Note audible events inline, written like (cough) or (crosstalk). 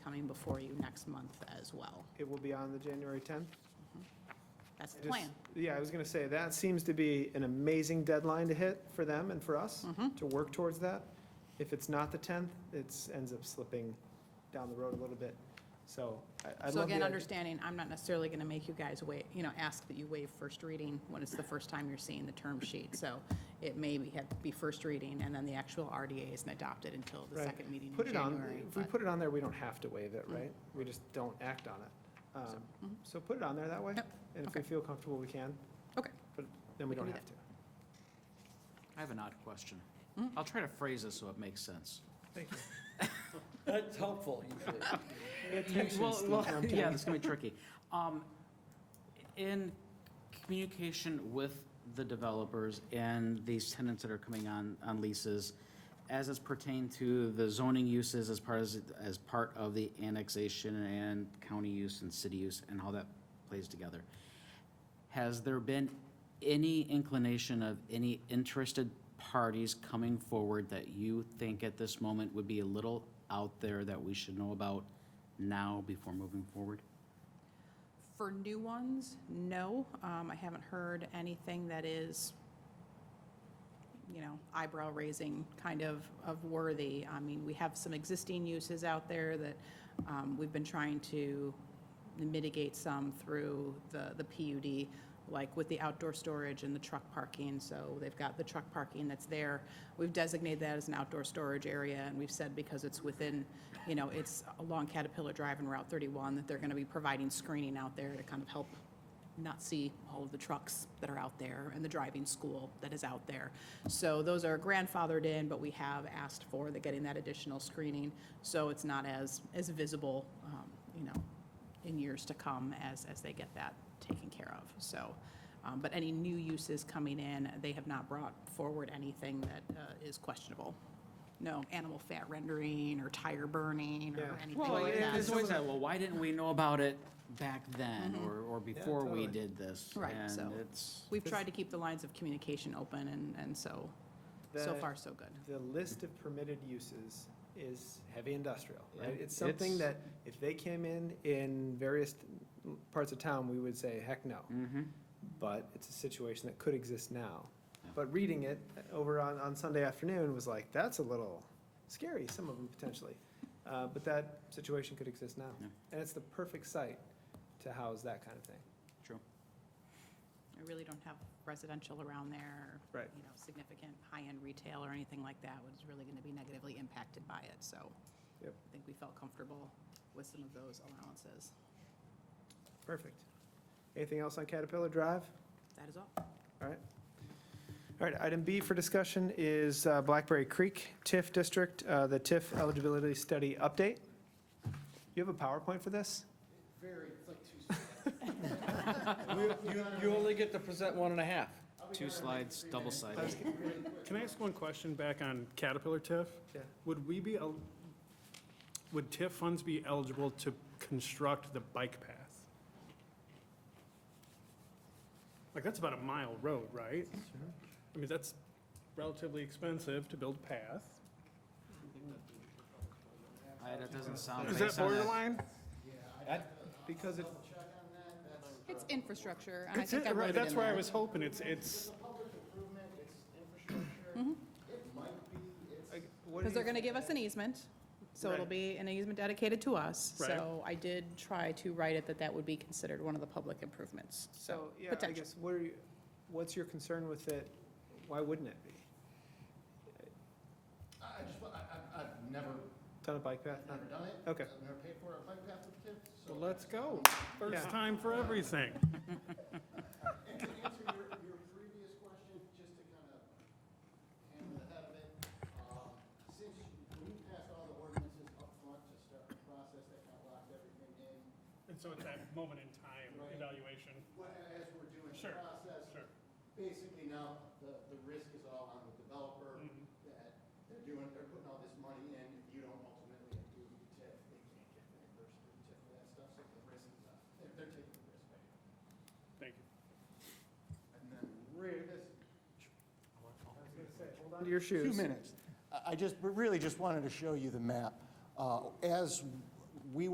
before you next month as well. It will be on the January 10th? That's the Just- plan. Yeah, I was going to say, that seems to be an amazing deadline to hit for them and for us, Mm-hmm. to work towards that. If it's not the 10th, it's, ends up slipping down the road a little bit. So I- I love So the again, idea. understanding, I'm not necessarily going to make you guys wait, you know, ask that you waive first reading when it's the first time you're seeing the term sheet. So it may be, have to be first reading and then the actual RDA isn't adopted until the Right. second meeting Put in it on, January. if we but- Mm. put it on there, we don't have to waive it, right? We just don't act on it. Um, So put it on there that way. mm-hmm. Yep, And if we okay. feel comfortable, we can, Okay, but then we We can don't do have to. I have an odd question. I'll try to phrase this so it makes sense. Thank you. That's helpful, usually. Pay attention, (laughs) Well, Steve, well, I'm Yeah, telling you. it's gonna be tricky. Um, In communication with the developers and these tenants that are coming on, on leases, as it's pertained to the zoning uses as part as, as part of the annexation and county use and city use and how that plays together, has there been any inclination of any interested parties coming forward that you think at this moment would be a little out there that we should know about now before moving forward? for new ones, no. Um, I haven't heard anything that is, you know, eyebrow raising kind of, of worthy. I mean, we have some existing uses out there that um, we've been trying to mitigate some through the, the PUD, like with the outdoor storage and the truck parking. So they've got the truck parking that's there. We've designated that as an outdoor storage area and we've said because it's within, you know, it's along Caterpillar Drive and Route 31 that they're going to be providing screening out there to kind of help not see all of the trucks that are out there and the driving school that is out there. So those are grandfathered in, but we have asked for the, getting that additional screening, so it's not as, as visible, um, you know, in years to come as, as they get that taken care of, so. um, But any new uses coming in, they have not brought forward anything that uh, is questionable. No animal fat rendering or tire burning Yeah. or anything Well, like that. there's always that, well, why didn't we know about it back then or, or before we totally. did this? Right, so- And it's, We've tried to keep the lines of communication open, and, and so, so The- far, so good. The list of permitted uses is heavy industrial, right? Yeah. It's something It's- that if they came in in various parts of town, we would say, heck no. mm-hmm. But it's a situation that could exist now. Yeah. But reading it over on, on Sunday afternoon was like, that's a little scary, some of them potentially. Uh, but that situation could exist now. Yeah. And it's the perfect site to house that kind of thing. true. I really don't have residential around there. or, Right. You know, significant high-end retail or anything like that was really going to be negatively impacted by it, so. Yep. I think we felt comfortable with some of those allowances. Perfect. Anything else on Caterpillar Drive? That is all. All right. All right, item B for discussion is uh, Blackberry Creek TIF District, uh, the TIF eligibility study update. You have a PowerPoint for this? You, you only get to present one and a half. Two slides, double sided. Can I ask one question back on Caterpillar TIF? Yeah. Would we be, el- would TIF funds be eligible to construct the bike path? Like, that's about a mile road, right? I mean, that's relatively expensive to build a path. That doesn't sound Is that based on that- borderline? Because it, It's infrastructure, and I It's think it, I wrote it right, in that's where I there. was hoping, it's, it's, like, what Because do they're you, going to give us an easement, so it'll Right. be an easement dedicated to us. Right. So I did try to write it that that would be considered one of the public improvements. so, yeah, I potential. guess, what are you, what's your concern with it? Why wouldn't it be? I I just, wa- I, I, I've never, Done a bike path? I've never done it. Okay. I've never paid for a bike path with kids, so. well, let's go. Yeah. First time for everything. And to answer your, your previous question, just to kind of hammer the head of it, um, since we passed all the ordinances up front to start the process that kind of locked everything in, And so it's that moment in time evaluation. what, as we're doing the Sure, process, sure. basically now, the, the risk is all on the developer Mm-hmm. that they're doing, they're putting all this money in, if you don't ultimately do the TIF, they can't get reimbursed for the TIF, for that stuff, so the risk is, on- they're, they're taking the risk. right? Thank you. And then realistically, Hold on to your shoes. Two minutes. I- I just, really just wanted to show you the map. Uh, As